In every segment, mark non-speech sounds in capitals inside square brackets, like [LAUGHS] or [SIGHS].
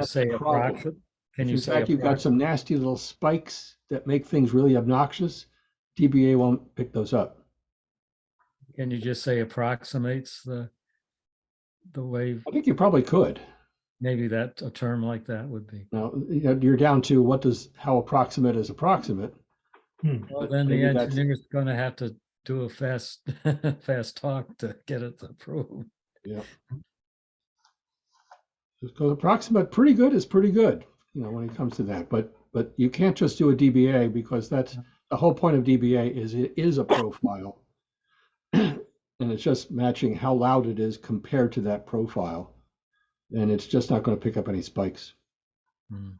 That's say the problem. approximate? Can you In say fact, you've got approximate? some nasty little spikes that make things really obnoxious. DBA won't pick those up. Can you just say approximates the, the way, I think you probably could. maybe that, a term like that would be. Now, you know, you're down to what does, how approximate is approximate? Well, But then the maybe that's- engineer's gonna have to do a fast, [LAUGHS] fast talk to get it approved. Because approximate, pretty good is pretty good, you know, when it comes to that. But, but you can't just do a DBA because that's, the whole point of DBA is it is a profile. [CLEARS THROAT] And it's just matching how loud it is compared to that profile. And it's just not going to pick up any spikes. Hmm.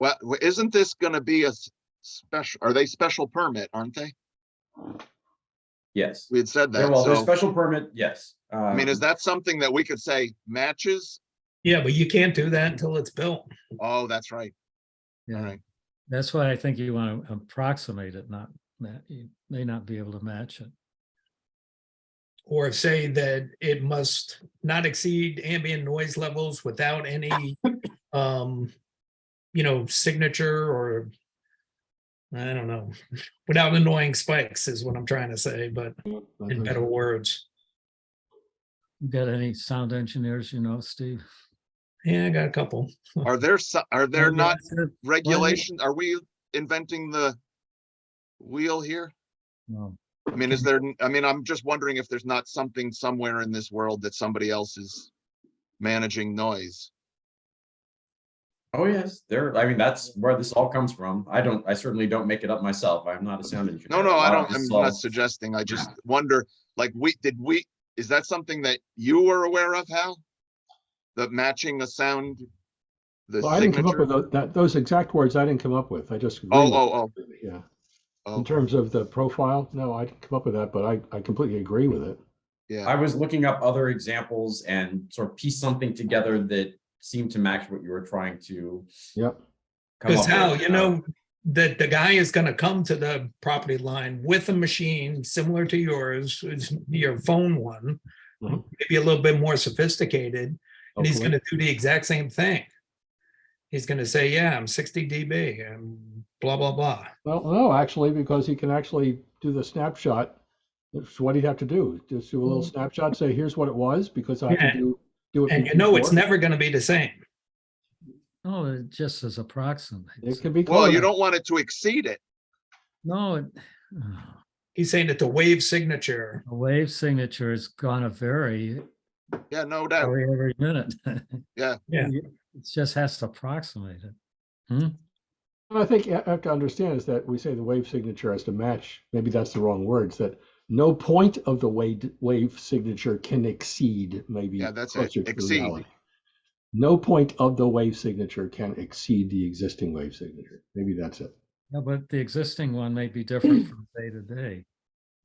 Well, w- isn't this gonna be a s- special, are they special permit, aren't they? Yes. We had said Yeah, that, Well, the so, special permit, yes. I mean, is Um, that something that we could say matches? Yeah, but you can't do that until it's built. Oh, that's right, all Yeah, right. that's why I think you wanna approximate it, not, ma- you may not be able to match it. Or say that it must not exceed ambient noise levels without any, um, you know, signature or I don't know, without annoying spikes is what I'm trying to say, but Mm-hmm. in better words. You got any sound engineers, you know, Steve? Yeah, I got a couple. Are there, so- are there Maybe not that's it. regulation? Are we inventing the wheel here? No. I mean, is there, n- I mean, I'm just wondering if there's not something somewhere in this world that somebody else is managing noise. oh, yes, there, I mean, that's where this all comes from. I don't, I certainly don't make it up myself. I'm not a sound engineer. Uh, No, A no, I lot of don't, I'm this not all- suggesting, I just wonder, like, we, did we, is that something that you were aware of, Hal? The matching the sound? The Well, I didn't come up signature? with tho- that, those exact words I didn't come up with. I just. Oh, agreed with oh, it, Yeah. oh, In oh, terms of the profile, no, I didn't come up with that, but I, I completely agree with it. yeah, I was looking up other examples and sort of piece something together that seemed to match what you were trying to Yep. come Because up how, with. Um, you know, that the guy is gonna come to the property line with a machine similar to yours, it's your phone one. Mhm. Maybe a little bit more sophisticated, and he's Hopefully. gonna do the exact same thing. He's gonna say, yeah, I'm sixty dB, and blah, blah, blah. Well, no, actually, because he can actually do the snapshot. That's what he'd have to do. Just do a little Mhm. snapshot, say, here's what it was, because I Yeah. can do, do it. And from you know, it's before. never gonna be the same. No, it just says approximates. It can be. well, colored. you don't want it to exceed it, No, it- [SIGHS] oh. He's saying that the wave signature, A wave signature is gonna vary yeah, no doubt, every, every minute. [LAUGHS] Yeah. Yeah. You- It just has to approximate it. I think you have to understand is that we say the wave signature has to match, maybe that's the wrong words, that no point of the wave, wave signature can exceed maybe. Yeah, that's it, closer to exceed. reality. No point of the wave signature can exceed the existing wave signature. Maybe that's it. Yeah, but the existing one may [CLEARS THROAT] be different from day to day.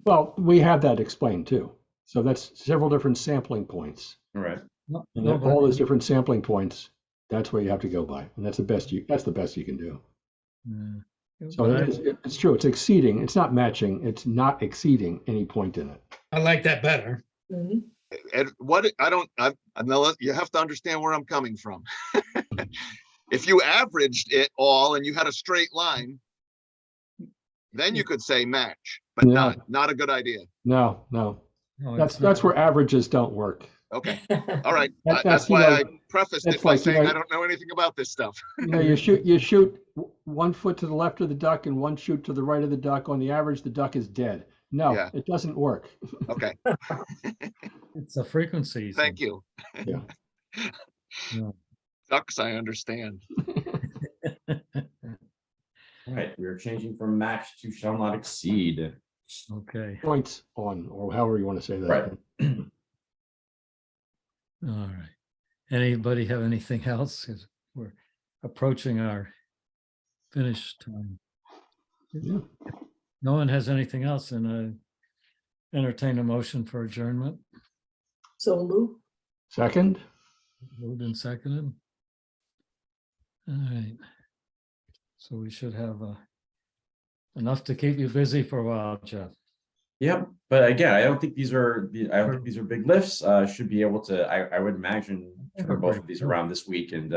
Well, we have that explained too. So that's several different sampling points. All right. No, And no, that- but- all those different sampling points, that's where you have to go by. And that's the best you, that's the best you can do. yeah. So But I- it is- it- it's true, it's exceeding, it's not matching, it's not exceeding any point in it. I like that better. and what, I don't, I, I know, you have to understand where I'm coming from. [LAUGHS] If you averaged it all and you had a straight line, then you could say match, but Mm. Yeah. not, not a good idea, No, no, no, that's, it's not- that's where averages don't work. okay, all right, That- I- that's why I like- prefaced that's it by like, you saying know- I don't know anything about this stuff. You know, you shoot, you shoot w- one foot to the left of the duck and one shoot to the right of the duck. On the average, the duck is dead. No, Yeah. it doesn't work. Okay, [LAUGHS] It's the frequencies. Thank you. Yeah. [LAUGHS] Yeah. Ducks, I understand. All right, we're changing from match to shall not exceed. Okay, Points on, or however you want to say that. Right. all right. Anybody have anything else? 'Cause We're approaching our finish time. Yeah. No one has anything else and I entertain a motion for adjournment. So Lou, Second, Moved and seconded. All right. So we should have uh, enough to keep you busy for a while, Jeff. Yep, but again, I don't think these are, the- I don't Sure. think these are big lifts. Uh, should be able to, I, I would imagine turn both of these [LAUGHS] Sure. around this week and